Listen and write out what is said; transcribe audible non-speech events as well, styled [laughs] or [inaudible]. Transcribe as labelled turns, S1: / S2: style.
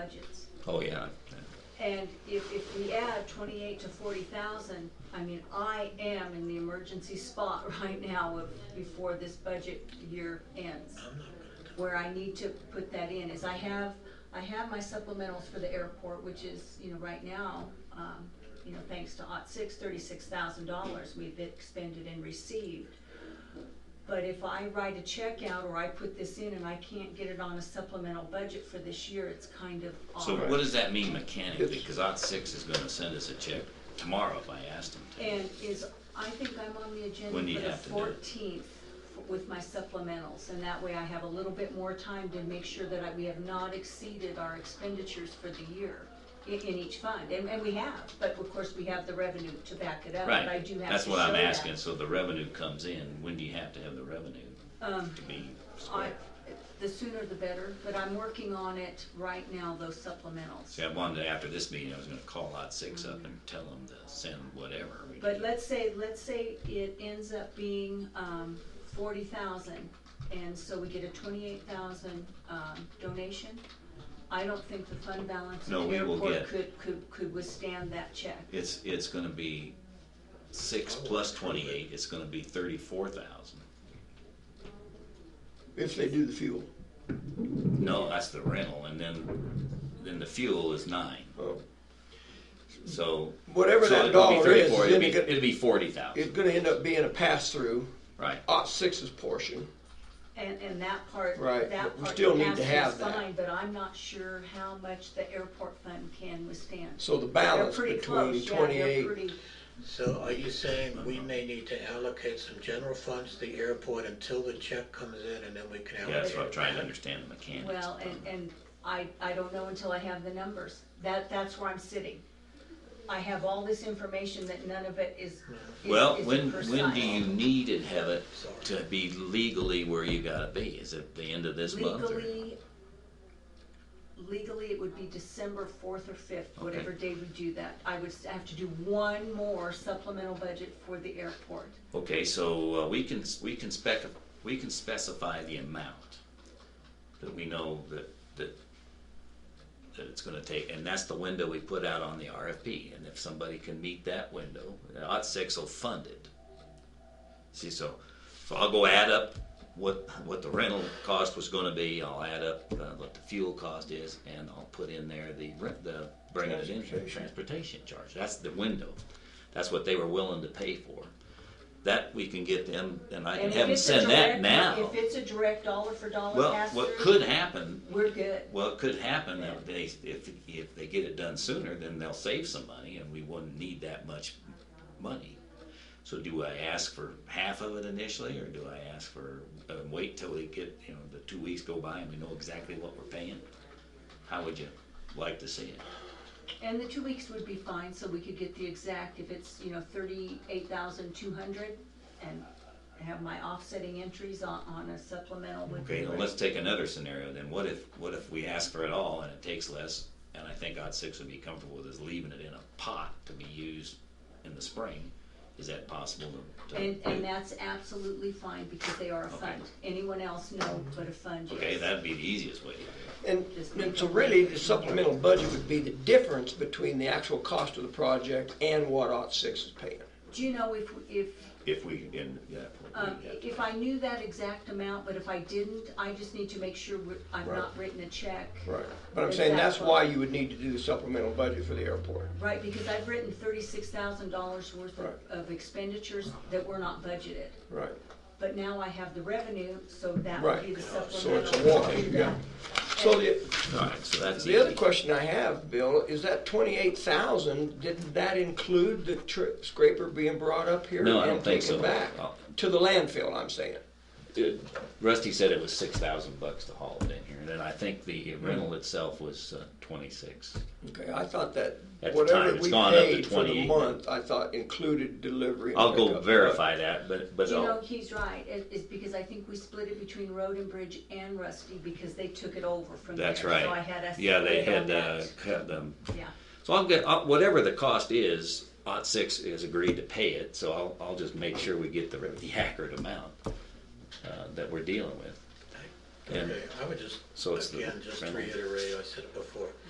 S1: budgets.
S2: Oh, yeah. yeah.
S1: And if, if we add twenty-eight to forty thousand, I mean, I am in the emergency spot [laughs] right now of, before this budget year ends. Where I need to put that in is I have, I have my supplementals for the airport, which is, you know, right now, um, you know, thanks to OT six, thirty-six thousand dollars we've expended and received. But if I write a check out or I put this in and I can't get it on a supplemental budget for this year, it's kind of off.
S2: So what does that mean mechanically? Because Ot Six is gonna send us a check tomorrow if I asked him to.
S1: And is, I think I'm on the agenda
S2: When do you
S1: for the
S2: have to do it?
S1: fourteenth with my supplementals, and that way I have a little bit more time to make sure that I, we have not exceeded our expenditures for the year i- in, each fund, and, and we have, but of course, we have the revenue to back it up, but I
S2: Right,
S1: do have to show that.
S2: that's what I'm asking, so the revenue comes in, when do you have to have the revenue
S1: Um,
S2: to be
S1: I,
S2: square?
S1: the sooner the better, but I'm working on it right now, those supplementals.
S2: See, I wanted, to- after this meeting, I was gonna call Ot Six up and tell them to send whatever. we
S1: But
S2: need.
S1: let's say, let's say it ends up being, um, forty thousand, and so we get a twenty-eight thousand, um, donation. I don't think the fund balance in
S2: No,
S1: the
S2: we will
S1: airport
S2: get-
S1: could, could, could withstand that check.
S2: It's, it's gonna be six plus twenty-eight, it's gonna be thirty-four thousand.
S3: If they do the fuel.
S2: No, that's the rental, and then, then the fuel is nine,
S3: Oh,
S2: so.
S3: Whatever
S2: so
S3: that
S2: it'll be
S3: dollar is,
S2: 34,
S3: then
S2: It'll be,
S3: it could-
S2: it'll be forty thousand,
S3: It's gonna end up being a pass-through,
S2: right?
S3: OT six's portion.
S1: And, and that part,
S3: Right,
S1: that
S3: but we
S1: part
S3: still
S1: the
S3: need to
S1: pass-through is
S3: have that.
S1: fine, but I'm not sure how much the airport fund can withstand.
S3: So the
S1: They're
S3: balance
S1: pretty
S3: between
S1: close, yeah, they're
S3: twenty-eight,
S1: pretty,
S4: So are you saying we may need to allocate some general funds to the airport until the check comes in and then we can
S2: Yeah, that's what I'm
S4: allocate?
S2: trying to understand the mechanics.
S1: well, and, and I, I don't know until I have the numbers. That, that's where I'm sitting. I have all this information that none of it is,
S2: Well,
S1: is- is
S2: when,
S1: precise.
S2: when do you need to have it
S4: Sorry.
S2: to be legally where you gotta be? Is it the end of this month or?
S1: Legally, legally, it would be December fourth or fifth, whatever day we do that. I would s- have to do one more supplemental budget for the airport.
S2: Okay, so uh, we can, we can spec, we can specify the amount that we know that, that, that it's gonna take, and that's the window we put out on the RFP, and if somebody can meet that window, OT six will fund it. See, so, so I'll go add up what, what the rental cost was gonna be, I'll add up uh, what the fuel cost is, and I'll put in there the, rent- the, bringing it in,
S3: Transportation.
S2: transportation charge, that's the window. That's what they were willing to pay for. That we can get them, and I can
S1: And if
S2: have them
S1: it's a
S2: send that
S1: direct-
S2: now.
S1: If it's a direct dollar for dollar
S2: Well,
S1: pass through.
S2: what could happen,
S1: We're good.
S2: well, it could happen that they, if, if they get it done sooner, then they'll save some money and we wouldn't need that much money. So do I ask for half of it initially or do I ask for, uh, wait till we get, you know, the two weeks go by and we know exactly what we're paying? How would you like to see it?
S1: And the two weeks would be fine, so we could get the exact, if it's, you know, thirty-eight thousand two hundred, and have my offsetting entries on, on a supplemental would
S2: Okay,
S1: be.
S2: now let's take another scenario then. What if, what if we ask for it all and it takes less? And I think odd six would be comfortable with us leaving it in a pot to be used in the spring. Is that possible to? to-
S1: And, and that's absolutely fine, because they are a fund. Anyone else, no, but a fund, yes.
S2: Okay, that'd be the easiest way to do it.
S3: and, and so really, the supplemental budget would be the difference between the actual cost of the project and what OT six is paying.
S1: Do you know if, if
S2: If we, in, yeah.
S1: Um, if I knew that exact amount, but if I didn't, I just need to make sure we're- I've
S3: Right.
S1: not written a check.
S3: Right, but I'm
S1: Is
S3: saying
S1: that
S3: that's
S1: what-
S3: why you would need to do the supplemental budget for the airport.
S1: Right, because I've written thirty-six thousand dollars worth of-
S3: Right.
S1: of expenditures that were not budgeted.
S3: Right,
S1: But now I have the revenue, so that would be
S3: right.
S1: the
S3: So
S1: supplemental.
S3: it's a wash, yeah. So the,
S2: All right, so that's
S3: The other
S2: easy.
S3: question I have, Bill, is that twenty-eight thousand, did that include the tri- scraper being brought up here?
S2: No, I don't think so.
S3: And taken
S2: Oh.
S3: back to the landfill, I'm saying.
S2: Rusty said it was six thousand bucks to haul it in here, and then I think the rental itself was uh, twenty-six.
S3: Okay, I thought that
S2: At the time,
S3: whatever
S2: it's
S3: we
S2: gone up to
S3: paid for
S2: 28.
S3: the month, I thought included delivery and
S2: I'll
S3: pickup.
S2: go verify that, but, but
S1: You know,
S2: I'll,
S1: he's right, it, it's because I think we split it between Road and Bridge and Rusty, because they took it over from there.
S2: that's
S1: So I
S2: right.
S1: had us.
S2: Yeah, they
S1: split on
S2: had, uh,
S1: that.
S2: cut them,
S1: Yeah,
S2: So I'll get, I'll- whatever the cost is, OT six has agreed to pay it, so I'll, I'll just make sure we get the, the accurate amount, uh, that we're dealing with. And
S4: Okay, I would just,
S2: So it's the
S4: again, just to
S2: rental.
S4: reiterate, I said it before,